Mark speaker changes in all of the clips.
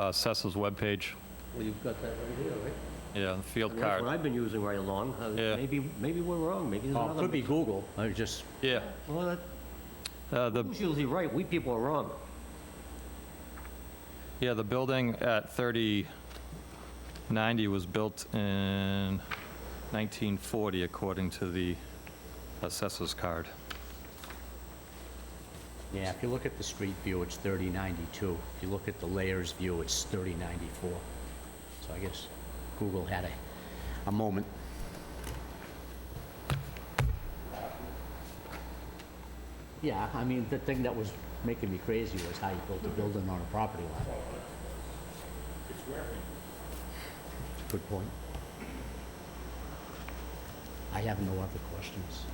Speaker 1: uh, CESA's webpage.
Speaker 2: Well, you've got that right here, right?
Speaker 1: Yeah, the field
Speaker 2: And That's what
Speaker 1: card.
Speaker 2: I've been using right along. Uh,
Speaker 1: Yeah.
Speaker 2: Maybe, maybe we're wrong, maybe there's
Speaker 3: Oh,
Speaker 2: another.
Speaker 3: could be Google, I just,
Speaker 1: Yeah,
Speaker 2: Well, that-
Speaker 1: uh, the,
Speaker 2: who's usually right? We people are wrong.
Speaker 1: yeah, the building at 3090 was built in 1940, according to the assessor's card.
Speaker 3: yeah, if you look at the street view, it's 3092. If you look at the layers view, it's 3094. So I guess Google had a, a moment. Yeah, I mean, the thing that was making me crazy was how you built a building on a property line. It's working. Good point. I have no other questions.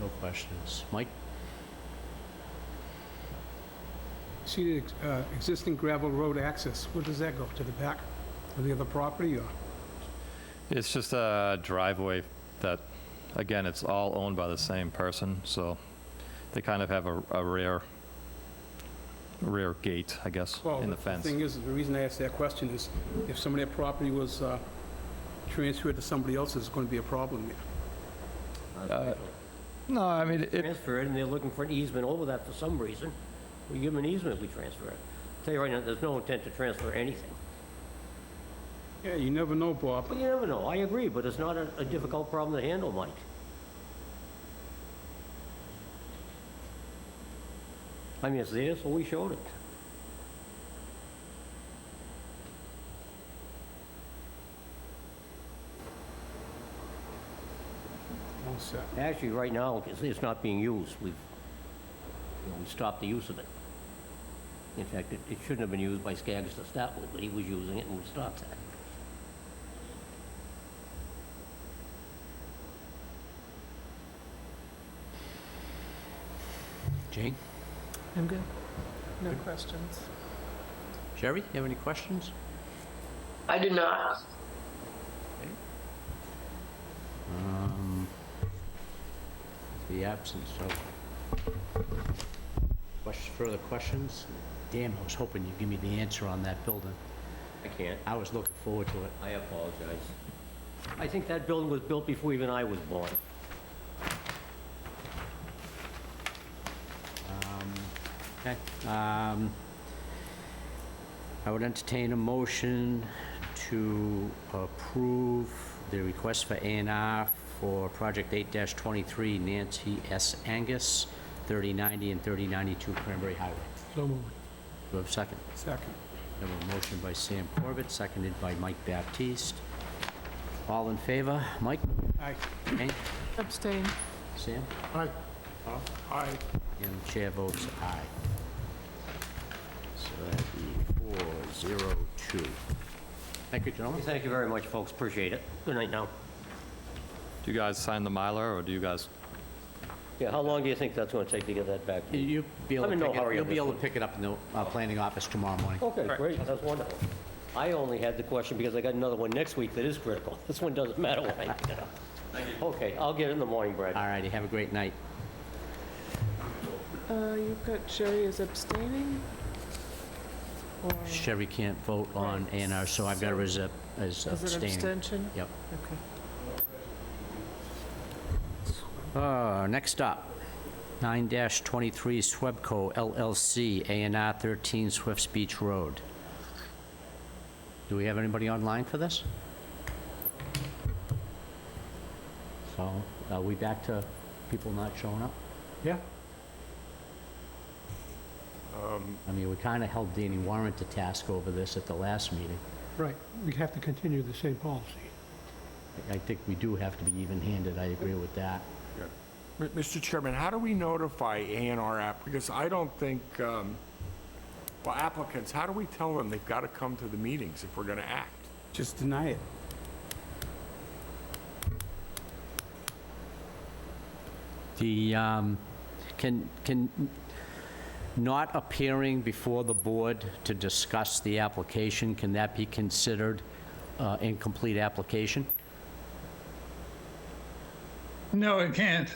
Speaker 3: No questions. Mike?
Speaker 4: See the ex- uh, existing gravel road access, where does that go? To the back of the other property or?
Speaker 1: It's just a driveway that, again, it's all owned by the same person, so they kind of have a a rear, rear gate, I guess,
Speaker 4: Well,
Speaker 1: in the fence.
Speaker 4: thing is, the reason I asked that question is if some of that property was uh, transferred to somebody else, there's going to be a problem there.
Speaker 3: Uh,
Speaker 1: No, I mean, it,
Speaker 2: Uh, Transfer it, and they're looking for an easement over that for some reason. We give them an easement, we transfer it. Tell you right now, there's no intent to transfer anything.
Speaker 4: Yeah, you never know, Bob.
Speaker 2: But you never know, I agree, but it's not a a difficult problem to handle, Mike. I mean, it's there, so we showed it.
Speaker 4: All set.
Speaker 2: Actually, right now, it's, it's not being used. We've, you know, we stopped the use of it. In fact, it, it shouldn't have been used by Skaggs to start with, but he was using it and we stopped that.
Speaker 3: Jane?
Speaker 5: I'm good. No questions.
Speaker 3: Sherry, you have any questions?
Speaker 6: I do not.
Speaker 3: Um, The absence of... Questions, further questions? Damn, I was hoping you'd give me the answer on that building.
Speaker 2: I can't.
Speaker 3: I was looking forward to it.
Speaker 2: I apologize. I think that building was built before even I was born.
Speaker 3: Okay. um, I would entertain a motion to approve the request for A and R for Project 8-23 Nancy S. Angus, 3090 and 3092 Cranberry Highway.
Speaker 4: So moved.
Speaker 3: Do I have a second?
Speaker 4: Second.
Speaker 3: We have a motion by Sam Corbett, seconded by Mike Baptiste. All in favor? Mike?
Speaker 4: Aye.
Speaker 3: Jane?
Speaker 5: Abstain.
Speaker 3: Sam?
Speaker 4: Aye. Aye.
Speaker 3: And the chair votes aye. So that'd be four, zero, two. Thank you, gentlemen.
Speaker 2: Thank you very much, folks, appreciate it. Good night now.
Speaker 1: do you guys sign the Mylar, or do you guys?
Speaker 2: Yeah, how long do you think that's gonna take to get that back?
Speaker 3: You'll be able
Speaker 2: I'm
Speaker 3: to
Speaker 2: in no
Speaker 3: pick it,
Speaker 2: hurry
Speaker 3: you'll
Speaker 2: on
Speaker 3: be
Speaker 2: this
Speaker 3: able to
Speaker 2: one.
Speaker 3: pick it up in the uh, planning office tomorrow morning.
Speaker 5: Oh.
Speaker 2: Okay, great, that's wonderful. I only had the question because I got another one next week that is critical. This one doesn't matter when I pick it up. Okay, I'll get it in the morning, Brad.
Speaker 3: All righty, have a great night.
Speaker 5: Uh, you've got Sherry is abstaining? Or is
Speaker 3: Sherry can't vote on A and R, so I've got her as a- as
Speaker 5: it
Speaker 3: abstaining.
Speaker 5: abstention?
Speaker 3: Yep.
Speaker 5: Okay.
Speaker 3: Uh, Next up, 9-23 Swebco LLC, A and R 13 Swifts Beach Road. Do we have anybody online for this? So, are we back to people not showing up?
Speaker 7: Yeah.
Speaker 3: I mean, we kind of held Danny Warren to task over this at the last meeting.
Speaker 7: Right, we have to continue the same policy.
Speaker 3: I- I think we do have to be even-handed, I agree with that.
Speaker 8: M- Mr. Chairman, how do we notify A and R app? Because I don't think, um, well, applicants, how do we tell them they've got to come to the meetings if we're going to act?
Speaker 4: Just deny it.
Speaker 3: The, um, can, can not appearing before the board to discuss the application, can that be considered uh, incomplete application?
Speaker 9: No, it can't.